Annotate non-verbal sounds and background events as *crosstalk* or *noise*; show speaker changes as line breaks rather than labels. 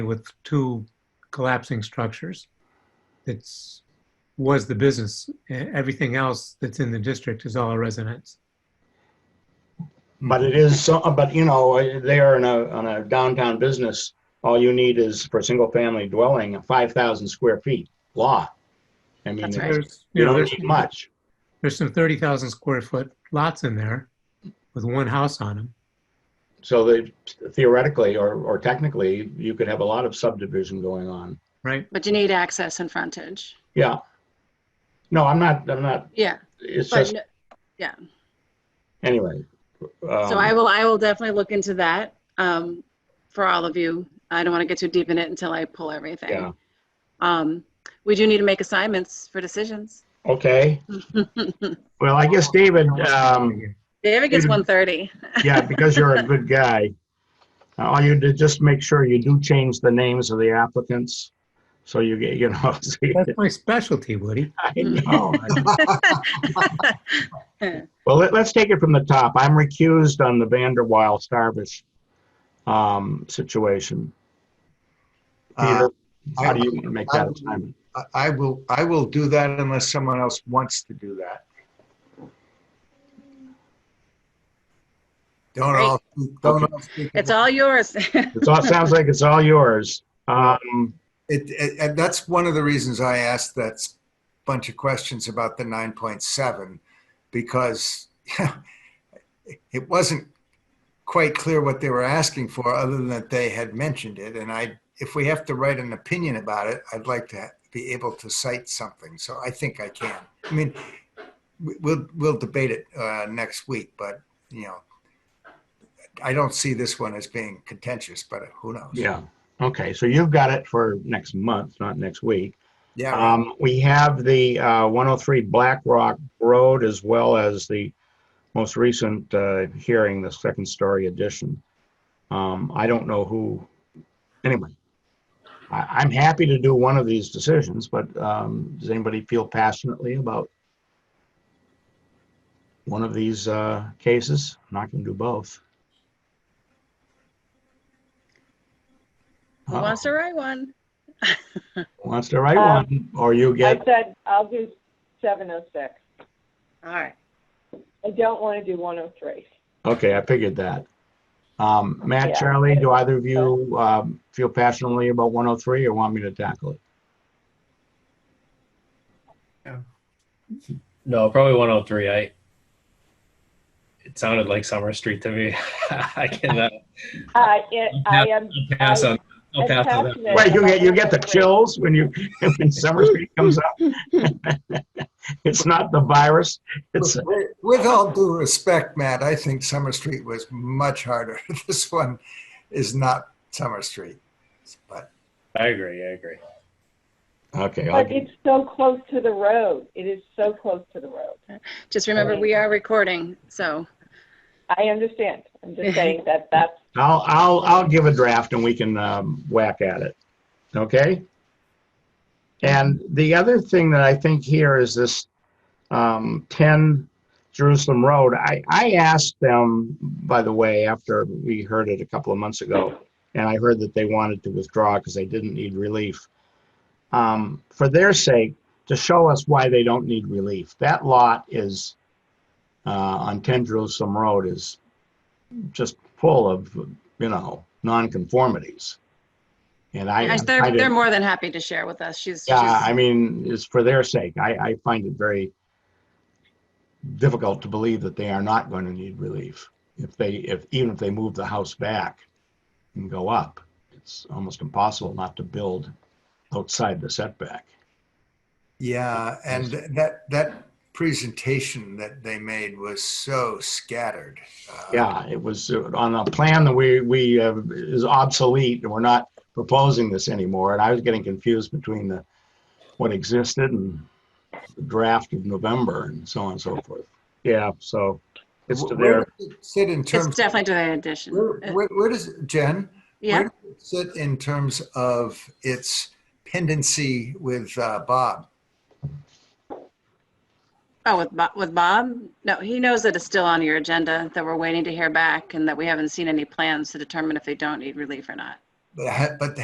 with two collapsing structures. It's, was the business. E- Everything else that's in the district is all a residence.
But it is, so. but you know, they are in a, on a downtown business. All you need is for a single family dwelling, a 5,000 square feet law. I mean,
That's right.
There's,
you
you know,
don't
there's,
need much.
there's some 30,000 square foot lots in there with one house on them.
So they theoretically or, or technically, you could have a lot of subdivision going on.
Right,
But you need access and frontage.
Yeah. No, I'm not, I'm not,
Yeah,
it's
but
just,
no-
anyway. um,
so I will, I will definitely look into that um, for all of you. I don't want to get too deep in it until I pull
Yeah,
everything. Um, We do need to make assignments for decisions. *laughs*
okay. Well, I guess David, um,
David gets
Mhm.
130.
Yeah, because you're a good guy. Uh, All you did, just make sure you do change the names of the applicants, so you get, you know. *laughs* so you-
that's my specialty, Woody.
I
Oh,
know. *laughs* Well, let, let's take it from the top. I'm recused on the Vanderwild Starbush, um, situation.
Uh,
Peter, how do you want to make that assignment?
I- Uh, I will, I will do that unless someone else wants to do that. Don't all, don't all. speak
It's
at
all yours. *laughs*
It's all, sounds like it's all yours. Um,
It, it, and that's one of the reasons I asked that s- bunch of questions about the nine point seven, because *laughs* it wasn't quite clear what they were asking for, other than that they had mentioned it, and I, if we have to write an opinion about it, I'd like to be able to cite something, so I think I can. I mean, we- we'll, we'll debate it, uh, next week, but, you know, I don't see this one as being contentious, but who knows?
yeah, okay, so you've got it for next month, not next week.
Yeah.
Um, we have the, uh, 103 Black Rock Road as well as the most recent, uh, hearing, the second story addition. Um, I don't know who, anyway. I, I'm happy to do one of these decisions, but, um, does anybody feel passionately about one of these, uh, cases? I'm Not gonna do both.
Who wants to write one?
Uh, Who Wants to write
Um,
one, or you
I
get,
said, I'll do seven oh six.
All right.
I don't want to do one oh three.
Okay, I figured that. Um, Matt,
Yeah.
Charlie, do either of you, um, feel passionately about 103 or want me to tackle it?
No, probably 103. I. It sounded like Summer Street to me. *laughs* I can uh,
I, it, I am.
pass
I-
on. I'll pass on that.
attachment-
Wait, you get, you get the chills when you, *laughs* when Summer Street comes up? *laughs* It's not the virus, it's,
With with all due respect, Matt, I think Summer Street was much harder. *laughs* This one is not Summer Street. But
I agree. I agree.
okay, I'll-
But it's so close to the road. It is so close to the road.
Just remember, we are recording, so.
I understand. I'm just saying that that's,
I'll, I'll, I'll give a draft and we can, um, whack at it, okay? And the other thing that I think here is this, um, ten Jerusalem Road. I, I asked them, by the way, after we heard it a couple of months ago, and I heard that they wanted to withdraw because they didn't need relief. Um, for their sake, to show us why they don't need relief. That lot is, uh, on ten Jerusalem Road is just full of, you know, nonconformities. And I. I
They're,
didn't-
they're more than happy to share with us. She's, she's,
yeah, I mean, it's for their sake. I, I find it very difficult to believe that they are not going to need relief. If they, if, even if they move the house back and go up, it's almost impossible not to build outside the setback.
yeah, and that that presentation that they made was so scattered. Uh,
Yeah, it was uh, on a plan that we, we, uh, is obsolete and we're not proposing this anymore. And I was getting confused between the, what existed and the draft of November and so on and so forth. Yeah, so it's to
Where
their,
does it sit in
it's uh,
terms?
definitely to the addition.
Where, where, where does Jen?
Yeah,
Where does it sit in terms of its pendency with uh, Bob?
oh, with Bob, with Bob? No, he knows that it's still on your agenda, that we're waiting to hear back and that we haven't seen any plans to determine if they don't need relief or not.
But, ha- but